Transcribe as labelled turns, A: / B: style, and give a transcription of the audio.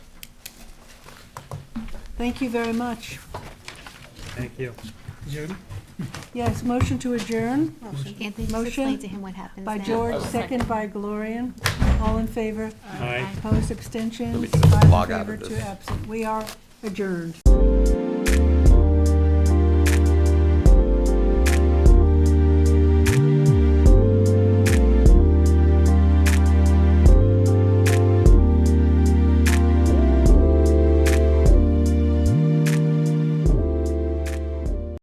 A: Thank you very much.
B: Thank you. Judy?
A: Yes, motion to adjourn
C: Anthony, just
A: Motion
C: explain to him what happens
A: by
C: now.
A: George, second by Gloria. All in favor?
B: Aye.
A: Opposed, abstentions?
D: just
A: Five in
D: log out of
A: favor, two
D: this.
A: absent. We are adjourned.